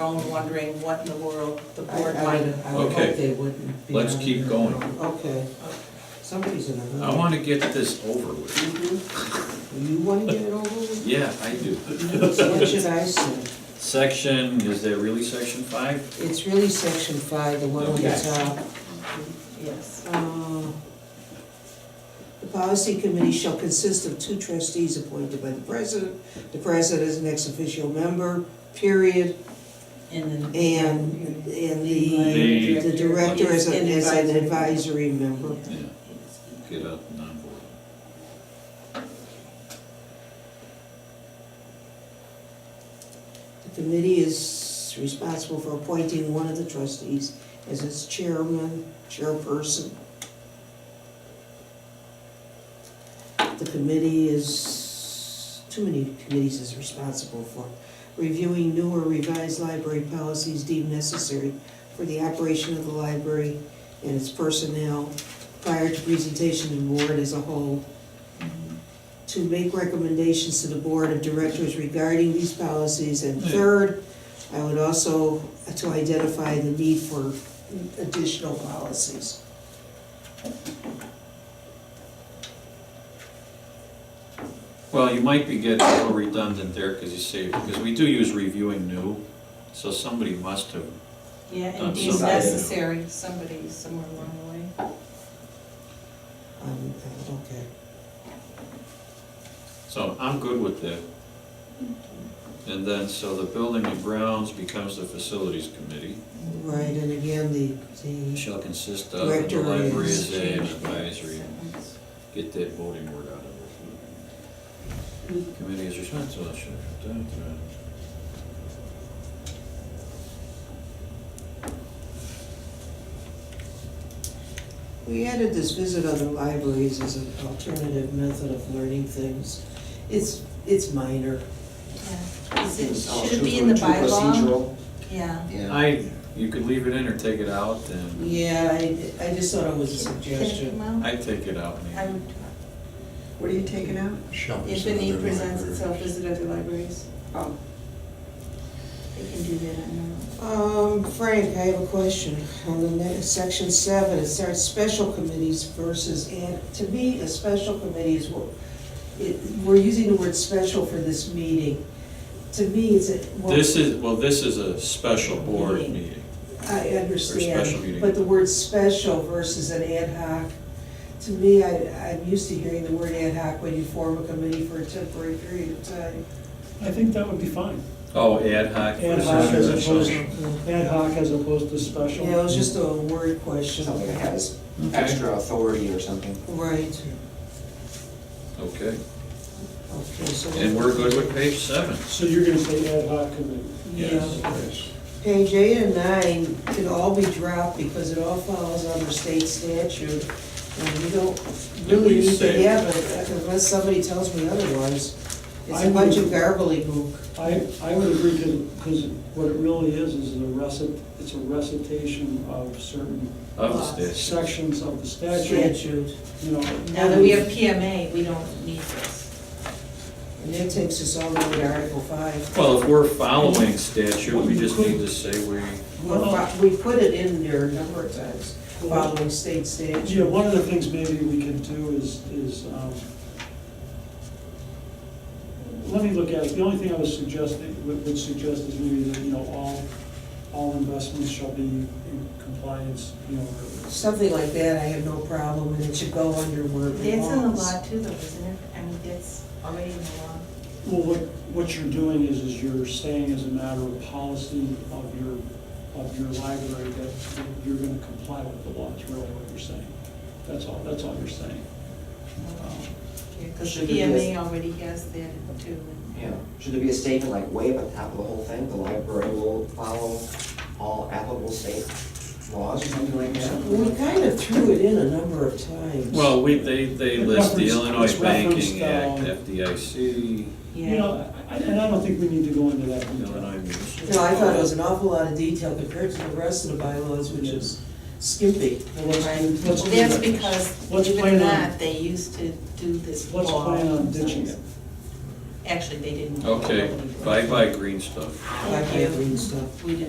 own wondering what in the world the I- I board would- might have. I would Okay. hope they wouldn't be Let's on keep here. going. Okay, somebody's in a hurry. I wanna get this over with. Mhm. You wanna get it over with? Yeah, I do. So What should I say? Section, is there really section five? It's really section five, the one on the Okay. top. Yes. Uh, The policy committee shall consist of two trustees appointed by the president. The president is an ex officio member, period, And then. and, and the, The- the director is, a- is an advisor. advisory member. Yeah. Get up and on board. The committee is responsible for appointing one of the trustees as its chairman, chairperson. The committee is, too many committees is responsible for reviewing new or revised library policies deemed necessary for the operation of the library and its personnel prior to presentation to the board as a whole. To make recommendations to the board of directors regarding these policies. And Yeah. third, I would also, uh, to identify the need for additional policies. Well, you might be getting a little redundant there, cause you say, because we do use reviewing new, so somebody must have. Yeah, and Done deemed something. necessary, somebody somewhere along the way. Um, okay. So I'm good with that. And then, so the building and grounds becomes the facilities committee. Right, and again, the, the, Shall consist of, and the Director library is- is an advisory. Get that voting word out of it. Committee is responsible. should- da, da. we added this visit other libraries as an alternative method of learning things. It's, it's minor. Yeah. Is it, should it be in the bylaw? Yeah. I, you could leave it in or take it out, and Yeah, I, I just thought it was a suggestion. Well, I'd take it out. I maybe. would, what are you taking out? Shall If the visit need other presents libraries. itself, visit other libraries. Oh. They can do that, I know. Um, Frank, I have a question. On the next, section seven, it starts special committees versus, and to me, a special committee is what, it, we're using the word special for this meeting. To me, it's a. well, This is, well, this is a special board meeting. I special understand, meeting. but the word special versus an ad hoc, to me, I, I'm used to hearing the word ad hoc when you form a committee for a temporary period of time. I think that would be fine. Oh, ad hoc Ad hoc as versus opposed, special. ad hoc as opposed to special. Yeah, it was just a word question. something that has Okay, extra authority or something. Right, okay. okay, so. And we're good with page seven. So you're gonna say ad hoc committee. Yeah, page eight and nine could all be dropped because it all follows under state statute. And we don't really we need to say- have it unless somebody tells me otherwise. It's I a bunch of would- garbly I, I would agree to, because what it really is, is a recit, it's a recitation of certain Of the statute. sections of the statute, statute. you know. Now that we have PMA, we don't need this. And that takes us all the way to Article five. Well, if we're following statute, we just need to say we, Well, We put it in there a number of times, following state Yeah, statute. one of the things maybe we could do is, is, um, let me look at it, the only thing I was suggesting, would would suggest is maybe that, you know, all, all investments shall be in compliance, you know, or- Something like that, I have no problem, and it should go under where it That's in the belongs. law too, though, isn't it? I mean, that's already in the law. well, what, what you're doing is, is you're saying as a matter of policy of your, of your library that you're gonna comply with the law, is really what you're saying. That's all, that's all you're saying. Um, Because Should be PMA this. E already has that too. Yeah. Should there be a statement like way up on top of the whole thing, the library will follow all applicable state laws or something like We that? kind of threw it in a number of times. well, we, they, they It list the referenced- Illinois it's referenced, Banking Act, um, FDIC, You Yeah. know, I- and I don't think we need to go into that detail. Illinois Municipal. No, I thought it was an awful lot of detail compared to the rest of the bylaws, which is skimpy. Well, let's- let's Well, do That's that. because, believe Let's it or plan on- not, they used to do this Let's law plan on ditching it. sometimes. Actually, they didn't. Okay, bye-bye green stuff. Black and green stuff. We didn't